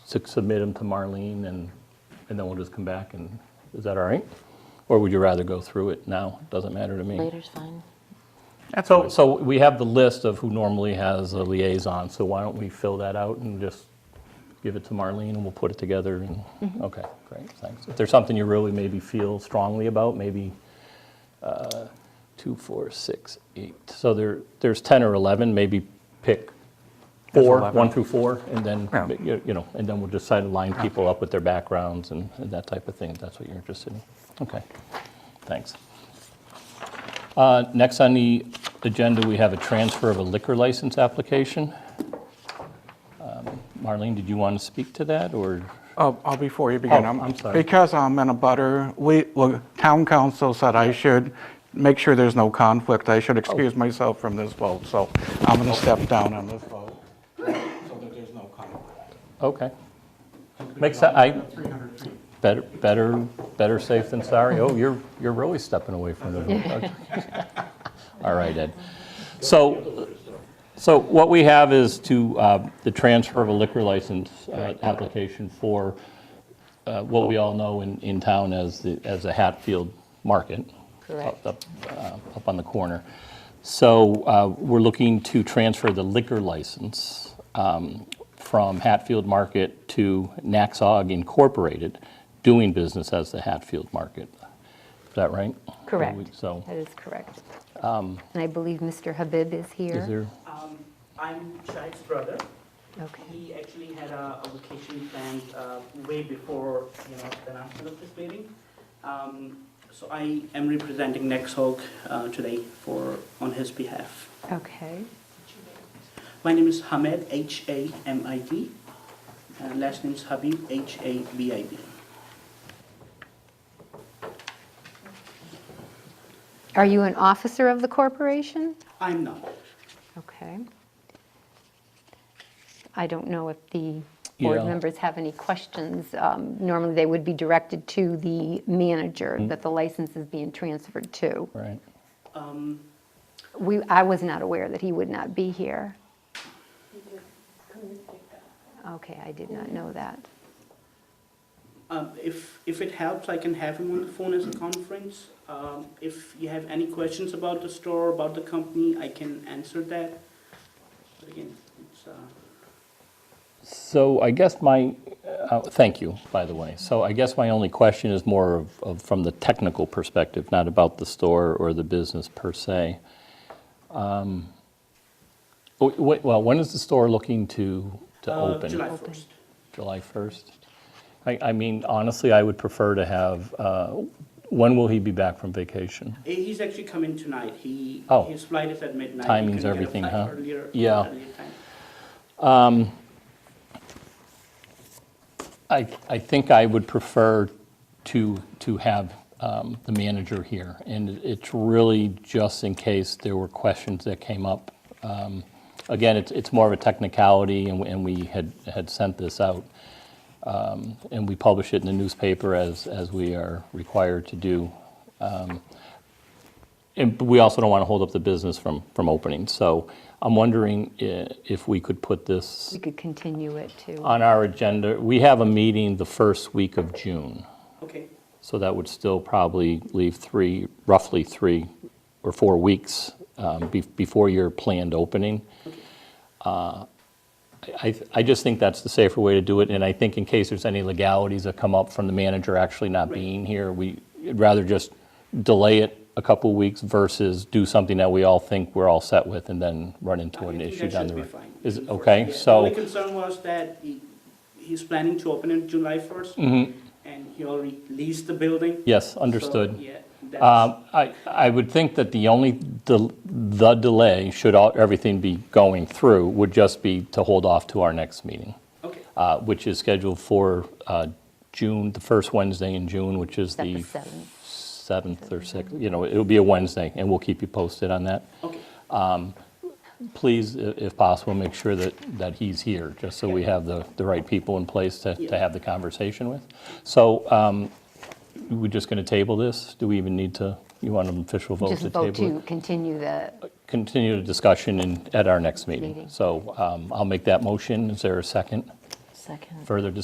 su- submit them to Marlene and, and then we'll just come back and, is that all right? Or would you rather go through it now? Doesn't matter to me. Later's fine. So, so we have the list of who normally has a liaison, so why don't we fill that out and just give it to Marlene and we'll put it together and, okay, great, thanks. If there's something you really maybe feel strongly about, maybe uh, two, four, six, eight. So there, there's 10 or 11, maybe pick There's four, 11. one through four, and then, Yeah. you you know, and then we'll just try to line people up with their backgrounds and and that type of thing, if that's what you're interested in. Okay, thanks. Uh, Next on the agenda, we have a transfer of a liquor license application. Um, Marlene, did you want to speak to that, or, Oh, oh, before you begin. Oh, I'm sorry. Because I'm in a butter, we, well, town council said I should make sure there's no conflict. I Oh. should excuse myself from this vote, so I'm going to step down on this vote. So that there's no conflict. okay. Makes, sen- I, 300 feet. better, better, better safe than sorry. Oh, you're, you're really stepping away from the vote. All right, Ed. So, so what we have is to, uh, the transfer of a liquor license uh, application for uh, what we all know in, in town as the, as the Hatfield Market. Up, Correct. up, uh, up on the corner. So uh, we're looking to transfer the liquor license um, from Hatfield Market to Naxog Incorporated, doing business as the Hatfield Market. Is that right? Correct. So, That is correct. And I believe Mr. Habib is here. Um, is there? I'm Shahid's brother. Okay. He actually had a, a vacation planned uh, way before, you know, the announcement of this meeting. Um, So I am representing Nexhog uh, today for, on his behalf. Okay. My name is Hamid, H-A-M-I-D, and Uh, last name is Habib, H-A-B-I-B. Are you an officer of the corporation? I'm not. Okay. I don't know if the board Yeah. members have any questions. Um, Normally, they would be directed to the manager Mm-hmm. that the license is being transferred to. Right. Um, We, I was not aware that he would not be here. Okay, I did not know that. Um, If, if it helps, I can have him on the phone as a conference. Um, If you have any questions about the store, about the company, I can answer that. But again, it's, uh, So I guess my, uh, thank you, by the way. So I guess my only question is more of- of, from the technical perspective, not about the store or the business per se. Um, w- w- Well, when is the store looking to, to uh, open? July Open. 1st. July 1st? I, I mean, honestly, I would prefer to have, uh, when will he be back from vacation? Eh, He's actually coming tonight. He, Oh. his flight is at midnight. He Timing's couldn't get a everything, flight huh? earlier- Yeah. earlier time. I, I think I would prefer to, to have um, the manager here. And it's really just in case there were questions that came up. Um, Again, it's, it's more of a technicality, and we- and we had, had sent this out. Um, And we publish it in the newspaper as, as we are required to do. Um, And but we also don't want to hold up the business from, from opening. So I'm wondering i- if we could put this We could continue it to, on our agenda, we have a meeting the first week of June, Okay, so that would still probably leave three, roughly three or four weeks um, be- before your planned opening. Uh, I I- I just think that's the safer way to do it, and I think in case there's any legalities that come up from the manager actually not Right. being here, we'd rather just delay it a couple weeks versus do something that we all think we're all set with and then run into I an think issue that down should the be road. fine. Is it okay? Yeah, So. The only concern was that he, he's planning to open on July 1st. And he already leased the building. Mm-hmm. Yes, So, understood. Yeah, that's, Um, I I would think that the only, del- the delay, should all- everything be going through, would just be to hold off to our next meeting, okay. uh, which is scheduled for uh, June, the first Wednesday in June, which is Except the the seventh. 7th or 6th, you know, it'll be a Wednesday, and we'll keep you posted on that. Okay, Please, i- if possible, make sure that, that he's here, just so we have the, the right people in place to, to Yeah. have the conversation with. So um, we're just going to table this? Do we even need to, you want an official vote just to vote table it? to continue the, continue the discussion in, at our next meeting. Meeting. So um, I'll make that motion. Is there a second? Second. Further discussion?